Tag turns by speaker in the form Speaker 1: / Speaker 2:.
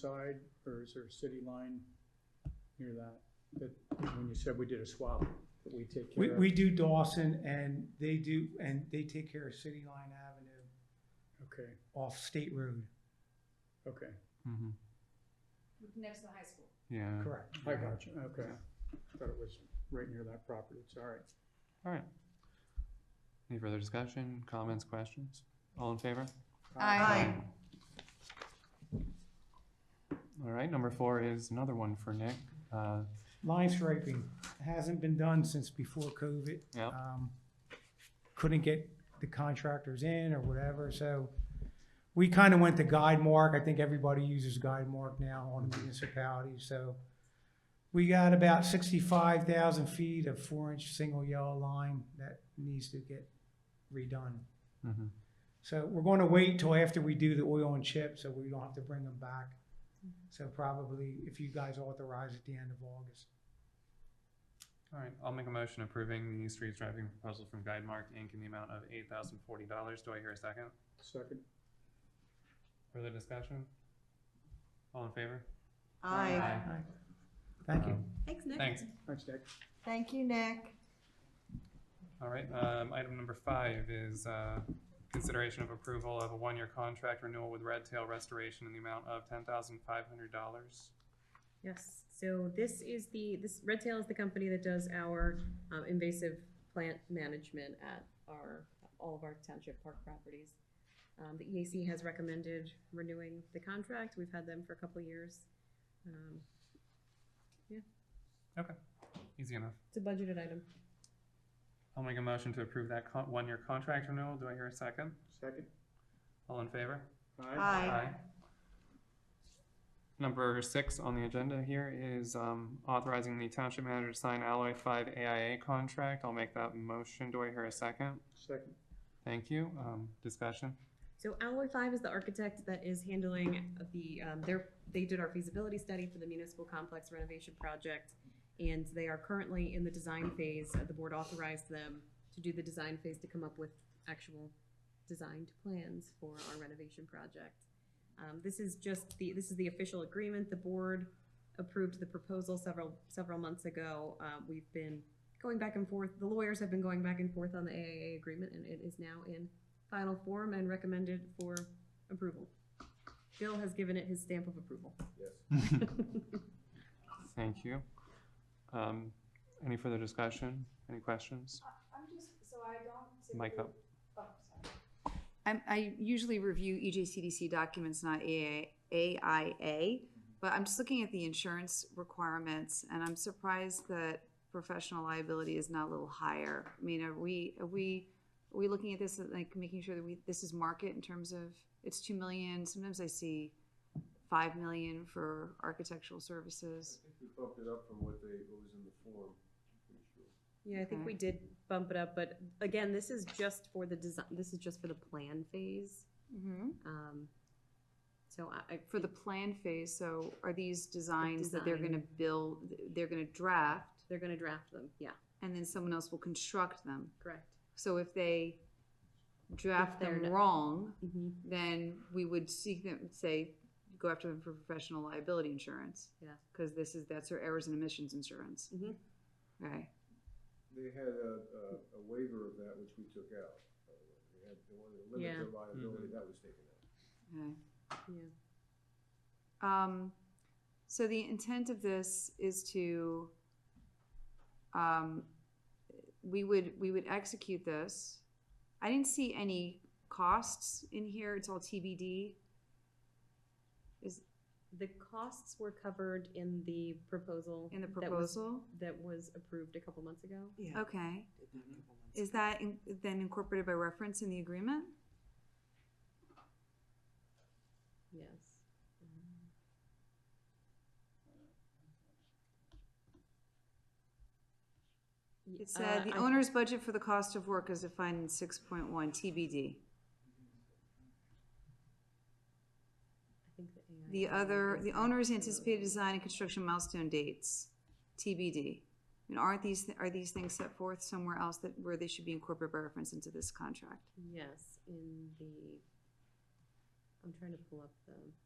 Speaker 1: side, or is there a city line near that? That, when you said we did a swap, that we take
Speaker 2: We,
Speaker 1: care of?
Speaker 2: we do Dawson and they do, and they take care of City Line Avenue
Speaker 1: Okay,
Speaker 2: off State Road.
Speaker 1: okay,
Speaker 3: Mhm.
Speaker 4: next to the high school.
Speaker 3: Yeah.
Speaker 2: Correct.
Speaker 1: I got you, okay. Thought it was right near that property, it's all right.
Speaker 3: All right. Any further discussion, comments, questions? All in favor?
Speaker 4: Aye.
Speaker 3: All right, number four is another one for Nick. Uh,
Speaker 2: Line striping hasn't been done since before COVID.
Speaker 3: Yeah.
Speaker 2: Um, Couldn't get the contractors in or whatever, so we kind of went to guide mark. I think everybody uses guide mark now on the municipality, so we got about sixty-five thousand feet of four-inch single yellow line that needs to get redone.
Speaker 3: mhm.
Speaker 2: So we're going to wait till after we do the oil and chip, so we don't have to bring them back. So probably if you guys authorize at the end of August.
Speaker 3: All right, I'll make a motion approving the street striping proposal from Guidemark Inc. in the amount of eight thousand forty dollars. Do I hear a second?
Speaker 1: Second,
Speaker 3: Further discussion? All in favor?
Speaker 5: Aye.
Speaker 2: Thank you.
Speaker 3: Um,
Speaker 5: Thanks, Nick.
Speaker 3: Thanks.
Speaker 1: thanks, Nick.
Speaker 5: Thank you, Nick.
Speaker 3: All right, um, item number five is, uh, consideration of approval of a one-year contract renewal with Red Tail Restoration in the amount of ten thousand five hundred dollars.
Speaker 6: Yes, so this is the, this, Red Tail is the company that does our um, invasive plant management at our, all of our township park properties. Um, The EAC has recommended renewing the contract, we've had them for a couple of years. Um,
Speaker 3: Easy enough.
Speaker 6: It's a budgeted item.
Speaker 3: I'll make a motion to approve that con- one-year contract renewal. Do I hear a second?
Speaker 1: Second,
Speaker 3: All in favor?
Speaker 1: aye,
Speaker 3: Number six on the agenda here is um, authorizing the township manager to sign Alloy Five AIA contract. I'll make that motion. Do I hear a second?
Speaker 1: second,
Speaker 3: Thank you. Um, discussion.
Speaker 6: So Alloy Five is the architect that is handling the, um, their, they did our feasibility study for the municipal complex renovation project. And they are currently in the design phase. Uh, The board authorized them to do the design phase to come up with actual designed plans for our renovation project. Um, this is just the, this is the official agreement. The board approved the proposal several, several months ago. Uh, we've been going back and forth. The lawyers have been going back and forth on the AAA agreement and it is now in final form and recommended for approval. Bill has given it his stamp of approval.
Speaker 3: Thank you. Um, any further discussion? Any questions?
Speaker 4: I'm just, so I don't.
Speaker 3: Mic up.
Speaker 4: Oh, sorry.
Speaker 5: I'm, I usually review E EJCDC documents, not AA AIA, but I'm just looking at the insurance requirements, and I'm surprised that professional liability is not a little higher. I mean, are we, are we, are we looking at this, as, like, making sure that we, this is market in terms of, it's two million, sometimes I see five million for architectural services.
Speaker 7: I think we bumped it up from what they, what was in the form, I'm pretty sure.
Speaker 6: Yeah, I think we did bump it up, but again, this is just for the design, this is just for the plan phase.
Speaker 5: Mm-hmm.
Speaker 6: Um, so I, I.
Speaker 5: For the plan phase, so are these designs that they're
Speaker 6: design.
Speaker 5: gonna build, they're gonna draft,
Speaker 6: They're gonna draft them, yeah,
Speaker 5: and then someone else will construct them?
Speaker 6: correct.
Speaker 5: So if they draft
Speaker 6: they're
Speaker 5: them
Speaker 6: not-
Speaker 5: wrong,
Speaker 6: Mm-hmm.
Speaker 5: then we would seek them, say, go after them for professional liability insurance.
Speaker 6: Yeah.
Speaker 5: Cause this is, that's their errors and emissions insurance.
Speaker 6: Mhm.
Speaker 5: Right,
Speaker 7: They had a, a, a waiver of that which we took out. by the way. They had, they wanted to limit
Speaker 6: Yeah.
Speaker 7: their liability, that was taken out.
Speaker 5: okay.
Speaker 6: Yeah.
Speaker 5: Um, so the intent of this is to, um, we would, we would execute this. I didn't see any costs in here, it's all TBD.
Speaker 6: The costs were covered in the proposal.
Speaker 5: In the
Speaker 6: that was-
Speaker 5: proposal?
Speaker 6: That was approved a couple months ago.
Speaker 8: Yeah.
Speaker 5: Okay.
Speaker 8: Mhm.
Speaker 5: Is that in- then incorporated by reference in the agreement?
Speaker 6: Yes. Y-
Speaker 5: It said,
Speaker 6: uh,
Speaker 5: "The
Speaker 6: I-
Speaker 5: owner's budget for the cost of work is defined in six point one TBD.
Speaker 6: I think the AI
Speaker 5: The other,
Speaker 6: is
Speaker 5: the owner's
Speaker 6: actually-
Speaker 5: anticipated design and construction milestone dates, TBD. And aren't these, are these things set forth somewhere else that, where they should be incorporated by reference into this contract?
Speaker 6: Yes, in the, I'm trying to pull up the,